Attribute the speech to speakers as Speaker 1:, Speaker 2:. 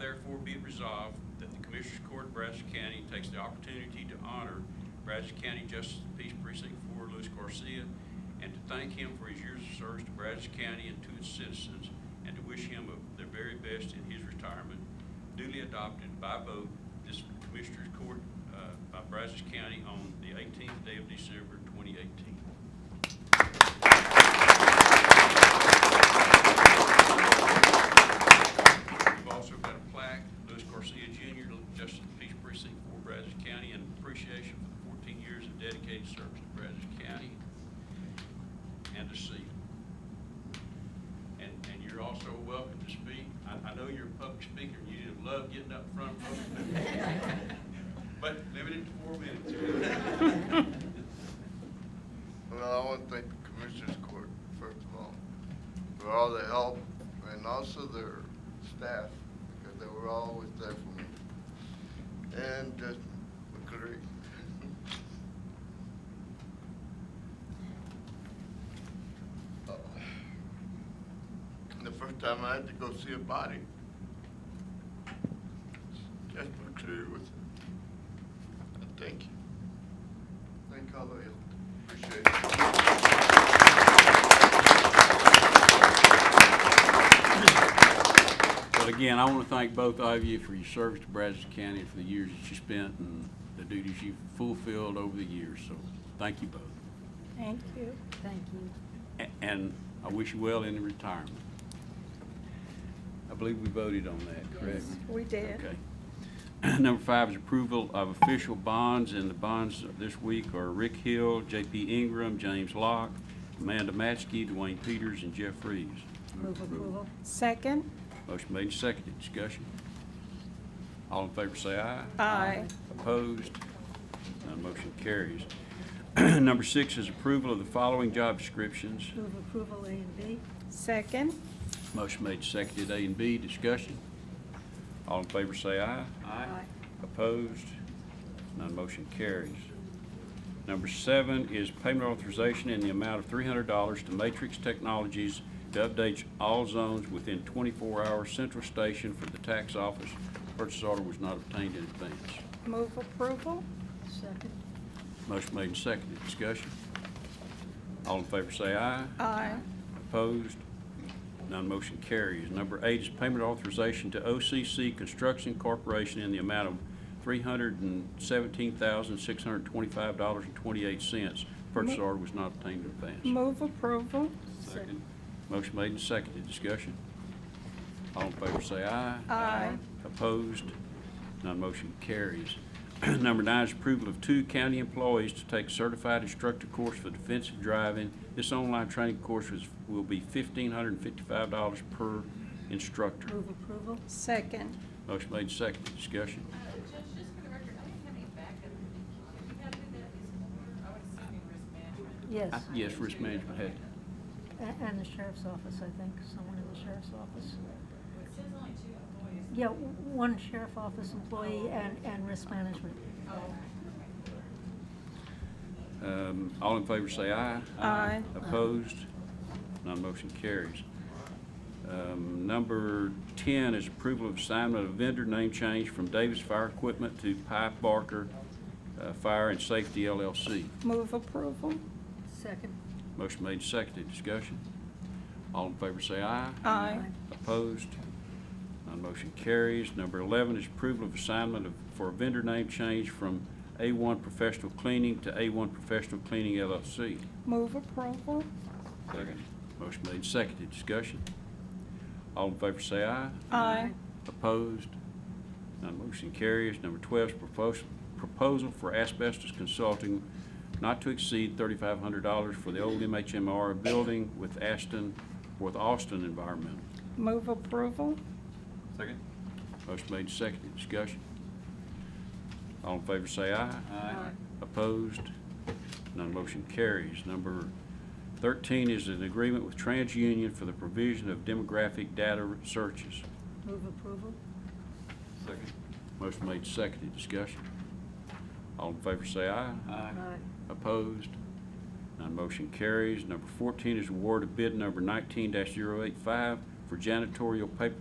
Speaker 1: therefore be it resolved that the Commissioners Court, Brazos County takes the opportunity to honor Brazos County Justice of the Peace Precinct Four, Luis Garcia, and to thank him for his years of service to Brazos County and to its citizens, and to wish him of the very best in his retirement, duly adopted by vote this Commissioners Court uh, by Brazos County on the 18th day of December 2018. We've also got a plaque, Louis Garcia Jr., Justice of the Peace Precinct for Brazos County, in appreciation for the 14 years of dedicated service to Brazos County and to see. And, and you're also welcome to speak. I, I know you're a public speaker, and you love getting up front, but limited to four minutes.
Speaker 2: Well, I want to thank the Commissioners Court, first of all, for all the help and also their staff, because they were always there for me. And Judge McCleary. Uh, The first time I had to go see a body, Judge McCleary was, thank you. Thank all of you. Appreciate it.
Speaker 1: But again, I want to thank both of you for your service to Brazos County, and for the years that you spent and the duties you've fulfilled over the years, so thank you both.
Speaker 3: Thank you.
Speaker 4: Thank you.
Speaker 1: A- And I wish you well in retirement. I believe we voted on that, correct?
Speaker 3: We did.
Speaker 1: Okay. Number five is approval of official bonds, and the bonds this week are Rick Hill, J.P. Ingram, James Locke, Amanda Matsky, Dwayne Peters, and Jeff Reeves.
Speaker 4: Move approval.
Speaker 3: Second,
Speaker 1: Motion made and seconded. Discussion. All in favor say aye.
Speaker 3: aye.
Speaker 1: Opposed? None motion carries. Number six is approval of the following job descriptions.
Speaker 4: Move approval A and B.
Speaker 3: Second,
Speaker 1: Motion made and seconded. A and B. Discussion. All in favor say aye.
Speaker 4: Aye.
Speaker 1: Opposed? None motion carries. Number seven is payment authorization in the amount of $300 to Matrix Technologies to update all zones within 24-hour central station for the tax office. Purchase order was not obtained in advance.
Speaker 3: move approval.
Speaker 4: Second.
Speaker 1: Motion made and seconded. Discussion. All in favor say aye.
Speaker 3: Aye.
Speaker 1: Opposed? None motion carries. Number eight is payment authorization to OCC Construction Corporation in the amount of $317,625.28. Purchase order was not obtained in advance.
Speaker 3: Move approval.
Speaker 1: Second. Motion made and seconded. Discussion? All in favor say aye.
Speaker 3: Aye.
Speaker 1: Opposed? None motion carries. Number nine is approval of two county employees to take certified instructor course for defensive driving. This online training course is, will be fifteen hundred and fifty-five dollars per instructor.
Speaker 4: Move approval.
Speaker 3: Second,
Speaker 1: Motion made, seconded, discussion.
Speaker 5: Judge, just for the record, I didn't have any backup. If you had to do that, is more, I would assume in risk management.
Speaker 4: Yes.
Speaker 1: I- Yes, risk management had,
Speaker 4: A- And the sheriff's office, I think, someone in the sheriff's office.
Speaker 5: It says only two employees.
Speaker 4: Yeah, w- one sheriff office employee and, and risk management.
Speaker 1: um, all in favor say aye.
Speaker 3: Aye.
Speaker 1: Opposed? None motion carries. Um, Number 10 is approval of assignment of vendor name change from Davis Fire Equipment to Pipe Barker uh, Fire and Safety LLC.
Speaker 3: move approval.
Speaker 4: Second.
Speaker 1: Motion made, seconded, discussion. All in favor say aye.
Speaker 3: Aye.
Speaker 1: Opposed? None motion carries. Number 11 is approval of assignment of, for vendor name change from A1 Professional Cleaning to A1 Professional Cleaning LLC.
Speaker 3: Move approval.
Speaker 1: Second. Motion made, seconded, discussion. All in favor say aye.
Speaker 3: Aye.
Speaker 1: Opposed? None motion carries. Number 12 is propos- proposal for asbestos consulting not to exceed $3,500 for the old MHMR building with Aston, with Austin Environmental.
Speaker 3: Move approval.
Speaker 1: Second. Motion made, and seconded. Discussion. All in favor say aye. Aye. Opposed? None motion carries. Number 13 is an agreement with TransUnion for the provision of demographic data searches.
Speaker 4: Move approval.
Speaker 1: Second. Motion made, seconded, discussion. All in favor say aye. Aye. Opposed? None motion carries. Number 14 is award of bid number 19-085 for janitorial paper